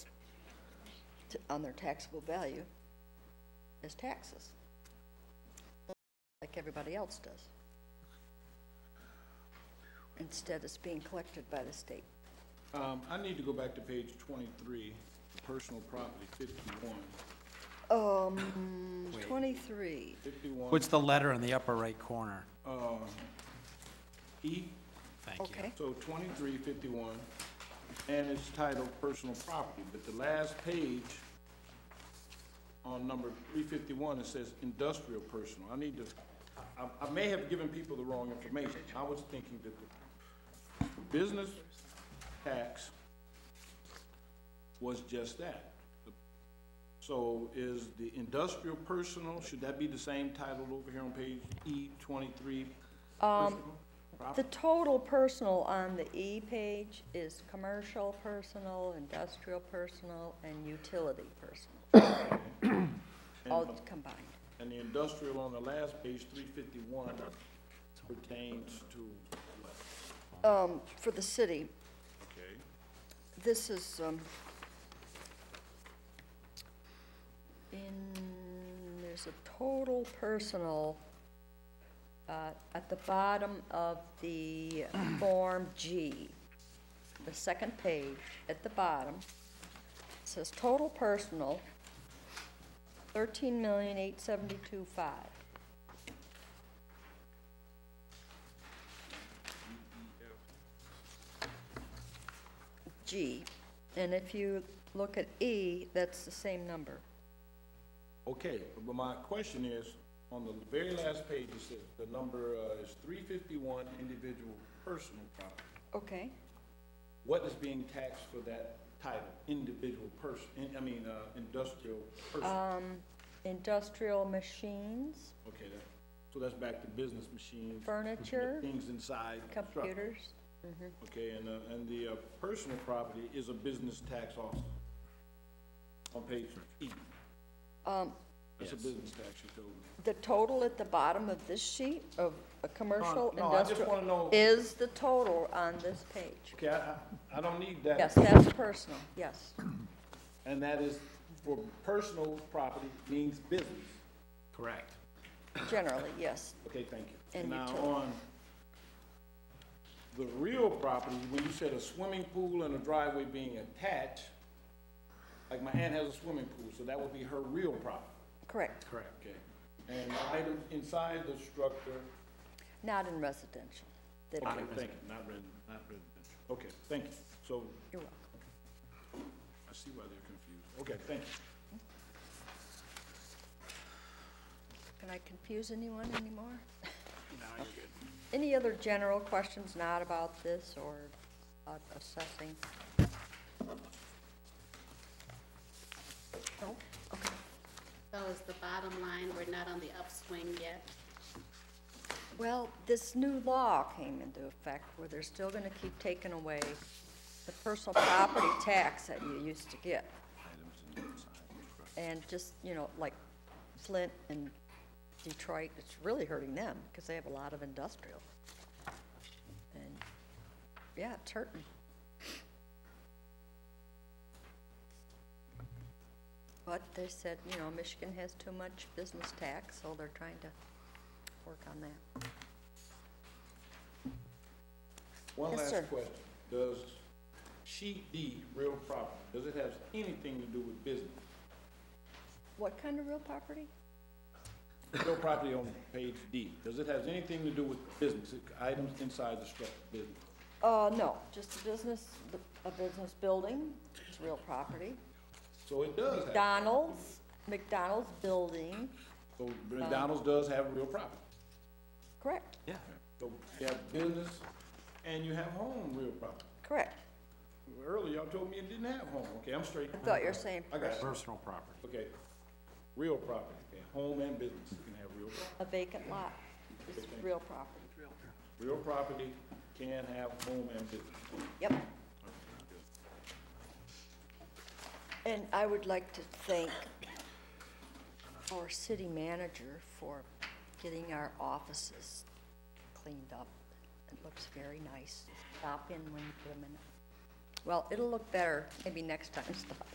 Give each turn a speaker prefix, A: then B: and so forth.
A: t- on their taxable value as taxes, like everybody else does. Instead, it's being collected by the state.
B: Um, I need to go back to page twenty-three, personal property, fifty-one.
A: Um, twenty-three,
B: Fifty-one
C: What's the letter in the upper right corner?
B: E,
C: Thank you.
A: okay.
B: so twenty-three fifty-one, and it's titled personal property, but the last page on number three fifty-one, it says industrial personal. I need to, I, I- I may have given people the wrong information. I was thinking that the business tax was just that. So is the industrial personal, should that be the same title over here on page E twenty-three? Um,
A: The total personal on the E page is commercial personal, industrial personal, and utility personal, all combined.
B: And the industrial on the last page, three fifty-one, pertains to what?
A: Um, for the city,
B: Okay.
A: this is, um, in, there's a total personal, uh, at the bottom of the Form G, the second page, at the bottom, says total personal, thirteen million eight seventy-two five. G, and if you look at E, that's the same number.
B: Okay, but my question is, on the very last page, it says the number uh, is three fifty-one, individual personal property.
A: Okay.
B: What is being taxed for that title, individual person, I mean, uh, industrial
A: Uh,
B: person?
A: Industrial machines,
B: Okay, that, so that's back to business machines.
A: Furniture,
B: Things inside. construction.
A: computers,
B: Okay, and, uh, and the, uh, personal property is a business tax also, on page E.
A: um,
B: That's a business tax you told me.
A: the total at the bottom of this sheet of a commercial
B: No, no, I just wanna
A: industrial
B: know-
A: is the total on this page.
B: Okay, I, I, I don't need that.
A: Yes, that's personal, yes,
B: And that is for personal property means business.
C: Correct.
A: generally, yes.
B: Okay, thank you.
A: And
B: Now,
A: utility.
B: on the real property, when you said a swimming pool and a driveway being attached, like my aunt has a swimming pool, so that would be her real property.
A: Correct,
C: Correct.
B: Okay. And items inside the structure
A: not in residential. They'd be-
B: Okay, thank you, not resident, not resident. Okay, thank you. So
A: You're welcome.
B: I see why they're confused. Okay, thank you.
A: Can I confuse anyone anymore? No, you're good. Any other general questions not about this or about assessing? No? Okay.
D: So is the bottom line, we're not on the upswing yet.
A: Well, this new law came into effect where they're still going to keep taking away the personal property tax that you used to get. And just, you know, like Flint and Detroit, it's really hurting them because they have a lot of industrial. And, yeah, it's hurting. But they said, you know, Michigan has too much business tax, so they're trying to work on that.
B: One
A: Yes, sir.
B: last question. Does sheet D, real property, does it have anything to do with business?
A: What kind of real property?
B: Real property on page D, does it have anything to do with business, items inside the structure, business?
A: Uh, no, just a business, a business building, it's real property.
B: So it does have,
A: McDonald's, McDonald's building,
B: so McDonald's does have real property.
A: correct,
C: Yeah.
B: So you have business and you have home real property.
A: correct.
B: Earlier, y'all told me it didn't have home. Okay, I'm straight.
A: I thought you were saying
B: I got it.
C: Personal property.
B: Okay, real property, okay, home and business, you can have real, pro-
A: a vacant lot is real property.
B: real property can have home and business.
A: Yep. And I would like to thank our city manager for getting our offices cleaned up. It looks very nice. Stop in when you put them in. Well, it'll look better, maybe next time, stop